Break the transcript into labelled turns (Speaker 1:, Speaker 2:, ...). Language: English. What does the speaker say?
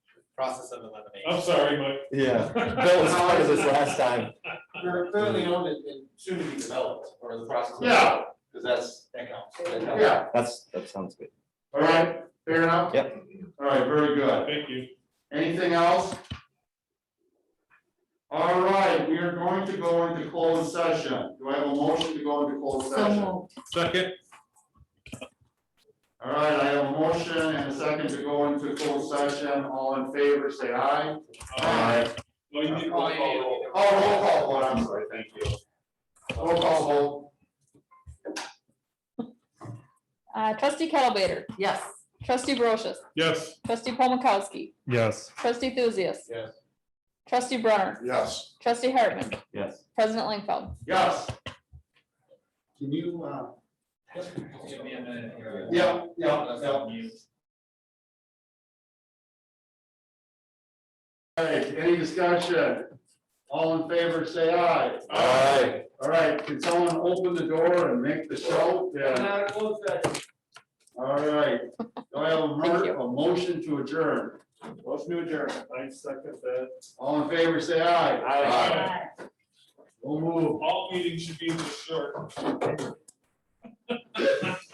Speaker 1: process of elimination.
Speaker 2: I'm sorry, Mike.
Speaker 3: Yeah, Bill was part of this last time.
Speaker 4: You're fairly owned and and soon to be developed, or the process. of-
Speaker 2: Yeah.
Speaker 4: Cause that's,
Speaker 1: That counts.
Speaker 4: that helps.
Speaker 2: Yeah,
Speaker 3: That's, that sounds good.
Speaker 5: All right, fair enough?
Speaker 3: Yep.
Speaker 5: All right, very good.
Speaker 2: thank you.
Speaker 5: Anything else? All right, we are going to go into closed session. Do I have a motion to go into closed session? All
Speaker 2: Second,
Speaker 5: right, I have a motion and a second to go into closed session. All in favor, say aye.
Speaker 2: uh, no, you did roll call roll.
Speaker 5: Oh, roll call vote, I'm sorry, thank you. Roll call vote.
Speaker 6: Uh, trustee Kettlebaiter,
Speaker 7: Yes.
Speaker 6: trustee Brochus,
Speaker 2: Yes.
Speaker 6: trustee Paul Mikowski,
Speaker 2: Yes.
Speaker 6: trustee Thuzius.
Speaker 4: Yes.
Speaker 6: Trustee Brunner,
Speaker 5: Yes.
Speaker 6: trustee Hartman,
Speaker 3: Yes.
Speaker 6: president Langfeld.
Speaker 5: Yes,
Speaker 4: Can you, uh?
Speaker 1: Give me a minute here.
Speaker 5: yeah, yeah,
Speaker 1: Let's
Speaker 5: yeah.
Speaker 1: help you.
Speaker 5: All right, any discussion? All in favor, say aye.
Speaker 3: Aye.
Speaker 5: All right, can someone open the door and make the show? Yeah, all right. Do I have a
Speaker 6: Thank
Speaker 5: mer-
Speaker 6: you.
Speaker 5: a motion to adjourn?
Speaker 2: Motion to adjourn. I second that.
Speaker 5: All in favor, say aye.
Speaker 2: Aye.
Speaker 5: We'll move.
Speaker 2: All meetings should be this short.